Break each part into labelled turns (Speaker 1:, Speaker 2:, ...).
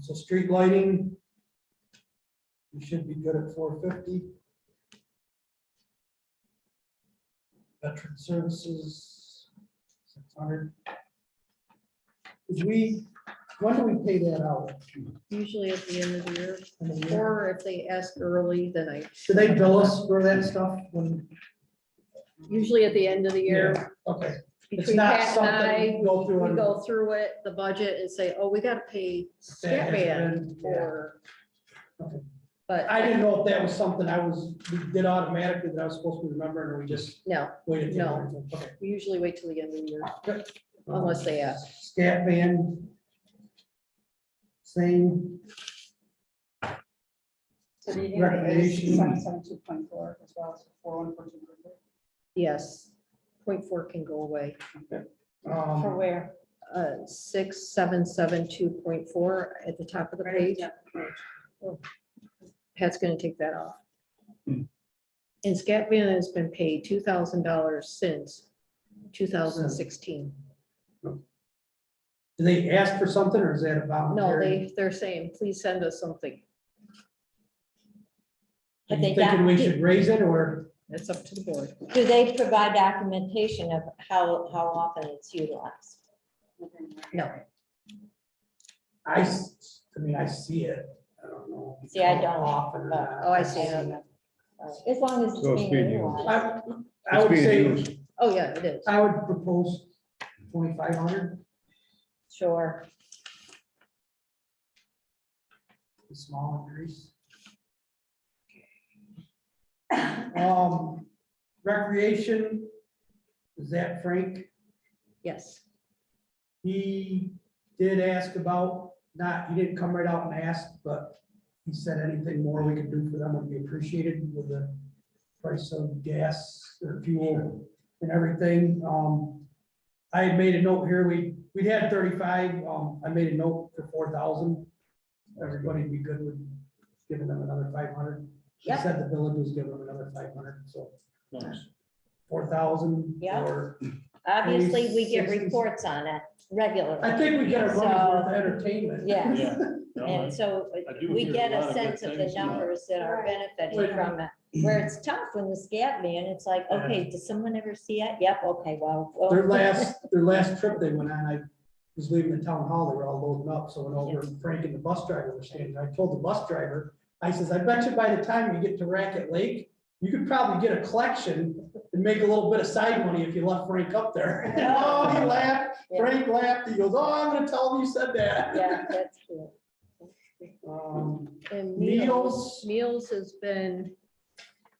Speaker 1: So street lighting, we should be good at four fifty. Veteran services, six hundred. Did we, when do we pay that out?
Speaker 2: usually at the end of the year,
Speaker 1: In the year?
Speaker 2: or if they ask early, then I,
Speaker 1: Should they bill us for that stuff when?
Speaker 2: usually at the end of the year.
Speaker 1: Okay, it's
Speaker 2: Between
Speaker 1: not
Speaker 2: Pat and
Speaker 1: something
Speaker 2: I,
Speaker 1: we go through
Speaker 2: we
Speaker 1: and.
Speaker 2: go through it, the budget, and say, oh, we gotta pay
Speaker 1: That has
Speaker 2: Scatman
Speaker 1: been-
Speaker 2: for.
Speaker 1: Okay.
Speaker 2: But,
Speaker 1: I didn't know if that was something I was, we did automatically that I was supposed to remember, and we just
Speaker 2: no,
Speaker 1: waited. till-
Speaker 2: No.
Speaker 1: Okay.
Speaker 2: we usually wait till the end of the year, unless they ask.
Speaker 1: Scat van. Same,
Speaker 3: So do you have the
Speaker 1: Recommendation.
Speaker 3: seven seven two point four as well as four one four two point three?
Speaker 2: Yes, point four can go away.
Speaker 3: For
Speaker 1: um,
Speaker 3: where?
Speaker 2: Uh, six, seven, seven, two point four at the top of the page. Pat's gonna take that off.
Speaker 1: Hmm.
Speaker 2: And Scat Van has been paid two thousand dollars since two thousand sixteen.
Speaker 1: do they ask for something or is that about?
Speaker 2: No, they, they're saying, please send us something.
Speaker 4: Have they
Speaker 1: Thinking
Speaker 4: got-
Speaker 1: we should raise it or,
Speaker 2: That's up to the board.
Speaker 4: Do they provide documentation of how, how often it's utilized?
Speaker 2: No,
Speaker 1: I, s- I mean, I see it, I don't know.
Speaker 4: See, I don't,
Speaker 1: Often or not.
Speaker 2: oh, I see it.
Speaker 4: As long as
Speaker 5: So
Speaker 4: it's being
Speaker 5: it's being used.
Speaker 4: utilized.
Speaker 1: I, I
Speaker 5: It's
Speaker 1: would
Speaker 5: being
Speaker 1: say,
Speaker 5: used.
Speaker 2: Oh, yeah, it is.
Speaker 1: I would propose twenty-five hundred,
Speaker 4: Sure.
Speaker 1: small increase. Um, recreation, is that Frank?
Speaker 2: Yes,
Speaker 1: He did ask about, not, he didn't come right out and ask, but he said anything more we could do for them would be appreciated with the price of gas or fuel and everything. Um, I had made a note here, we, we had thirty-five, um, I made a note for four thousand. Everybody'd be good with giving them another five hundred. She
Speaker 2: Yep.
Speaker 1: said the village was giving them another five hundred, so four thousand.
Speaker 4: Yeah.
Speaker 1: Or
Speaker 4: Obviously, we get
Speaker 1: 60s.
Speaker 4: reports on it
Speaker 1: I
Speaker 4: regularly.
Speaker 1: think we get a run
Speaker 4: So-
Speaker 1: for entertainment.
Speaker 4: Yes.
Speaker 5: Yeah. No, I-
Speaker 4: And so
Speaker 5: I do
Speaker 4: we
Speaker 5: hear a
Speaker 4: get
Speaker 5: lot
Speaker 4: a
Speaker 5: of good
Speaker 4: sense of the
Speaker 5: things about-
Speaker 4: numbers that are
Speaker 1: Wait a
Speaker 4: benefiting from it. Where it's tough when the scat man, it's like,
Speaker 1: Yeah.
Speaker 4: okay, does someone ever see it? Yep, okay, well. well,
Speaker 1: Their last, their last trip they went on, I was leaving the town hall, they were all loading up, so when over and Frank and the bus driver were standing, I told the bus driver, I says, I bet you by the time you get to Racket Lake, you could probably get a collection and make a little bit of side money if you left Frank up there. Oh, he laughed, Frank laughed, he goes, oh, I'm gonna tell him you said that.
Speaker 4: Yeah, that's true.
Speaker 1: Um,
Speaker 2: and
Speaker 1: Meals.
Speaker 2: meals, meals has been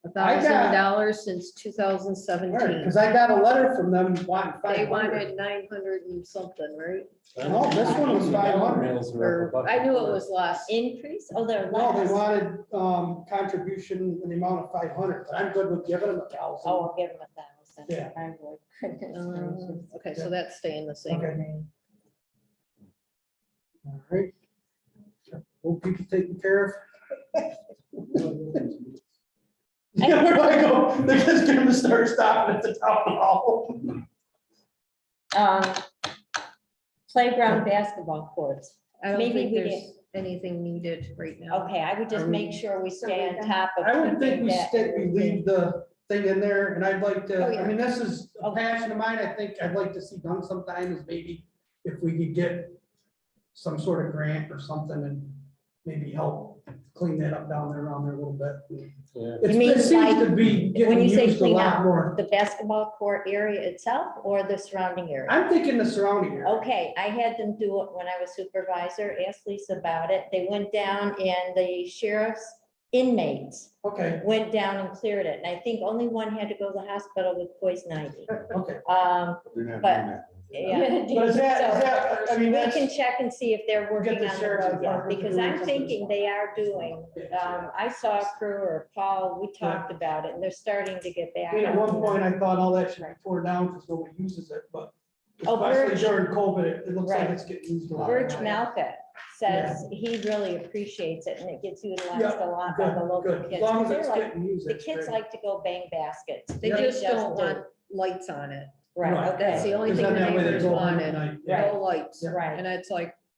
Speaker 2: a
Speaker 1: I got-
Speaker 2: thousand dollars since two thousand
Speaker 1: all right,
Speaker 2: seventeen.
Speaker 1: cause I got a letter from them wanting
Speaker 2: They
Speaker 1: five hundred.
Speaker 2: wanted nine hundred and something, right?
Speaker 1: No, this one was five hundred.
Speaker 2: Or, I knew it was less.
Speaker 4: Increase, oh, they're
Speaker 1: No, they
Speaker 4: less.
Speaker 1: wanted, um, contribution in the amount of five hundred, but I'm good with giving them a thousand.
Speaker 4: Oh, I'll give them a thousand.
Speaker 1: Yeah.
Speaker 4: I would. Goodness
Speaker 2: Um,
Speaker 4: gracious.
Speaker 2: Okay, so that's staying the same.
Speaker 1: Okay. All right. Hope people taken care of. Yeah, where do I go? They're just gonna start stopping at the town hall.
Speaker 4: Um, Playground basketball courts.
Speaker 2: I don't
Speaker 4: Maybe
Speaker 2: think
Speaker 4: we
Speaker 2: there's anything needed right now.
Speaker 4: Okay, I would just
Speaker 1: Are
Speaker 4: make sure we stay on
Speaker 3: we-
Speaker 4: top of.
Speaker 1: I would think
Speaker 4: keeping
Speaker 1: we
Speaker 4: that
Speaker 1: stick, we leave the thing in there, and I'd like
Speaker 2: Oh,
Speaker 1: to,
Speaker 2: yeah.
Speaker 1: I mean, this is a
Speaker 4: Okay.
Speaker 1: passion of mine, I think I'd like to see done sometime is maybe if we could get some sort of grant or something and maybe help clean that up down there around there a little bit. It's-
Speaker 4: You mean
Speaker 1: It seems
Speaker 4: like-
Speaker 1: to be getting
Speaker 4: you say
Speaker 1: used a
Speaker 4: clean
Speaker 1: lot
Speaker 4: up,
Speaker 1: more.
Speaker 4: The basketball court area itself or the surrounding area?
Speaker 1: I'm thinking the surrounding area.
Speaker 4: Okay, I had them do it when I was supervisor, asked Lisa about it. They went down and the sheriff's inmates
Speaker 1: Okay,
Speaker 4: went down and cleared it. And I think only one had to go to the hospital with poison ivy.
Speaker 1: okay.
Speaker 4: Um, But- yeah.
Speaker 1: But is that, is that, I mean,
Speaker 4: We
Speaker 1: that's,
Speaker 4: can check and see if they're
Speaker 1: We'll get the
Speaker 4: working on the
Speaker 1: sheriff's
Speaker 4: road work,
Speaker 1: department to
Speaker 4: because
Speaker 1: do
Speaker 4: I'm
Speaker 1: something.
Speaker 4: thinking they are doing. Um, I saw a crew or Paul, we talked about it, and they're starting to get back.
Speaker 1: I mean, at
Speaker 4: out.
Speaker 1: one point, I thought all that should be torn down because nobody uses it, but
Speaker 4: Oh,
Speaker 1: especially
Speaker 4: Birch.
Speaker 1: during COVID, it it looks like
Speaker 4: Right.
Speaker 1: it's getting used a lot.
Speaker 4: Virg Malka says he really appreciates it, and it gets utilized a lot by
Speaker 1: Good,
Speaker 4: the local
Speaker 1: good. As
Speaker 4: kids.
Speaker 1: long as
Speaker 4: 'cause they're
Speaker 1: it's
Speaker 4: like-
Speaker 1: getting used.
Speaker 4: The
Speaker 1: it's
Speaker 4: kids
Speaker 1: great.
Speaker 4: like to go bang baskets.
Speaker 2: They
Speaker 1: Yeah.
Speaker 2: just don't
Speaker 4: do.
Speaker 2: want lights on it.
Speaker 1: Right.
Speaker 4: Right,
Speaker 2: That's the
Speaker 4: okay,
Speaker 2: only
Speaker 1: Because then
Speaker 2: thing the
Speaker 1: that way they
Speaker 2: neighbors
Speaker 1: go home at
Speaker 2: wanted,
Speaker 1: night, yeah.
Speaker 2: no lights.
Speaker 4: right.
Speaker 2: And it's like,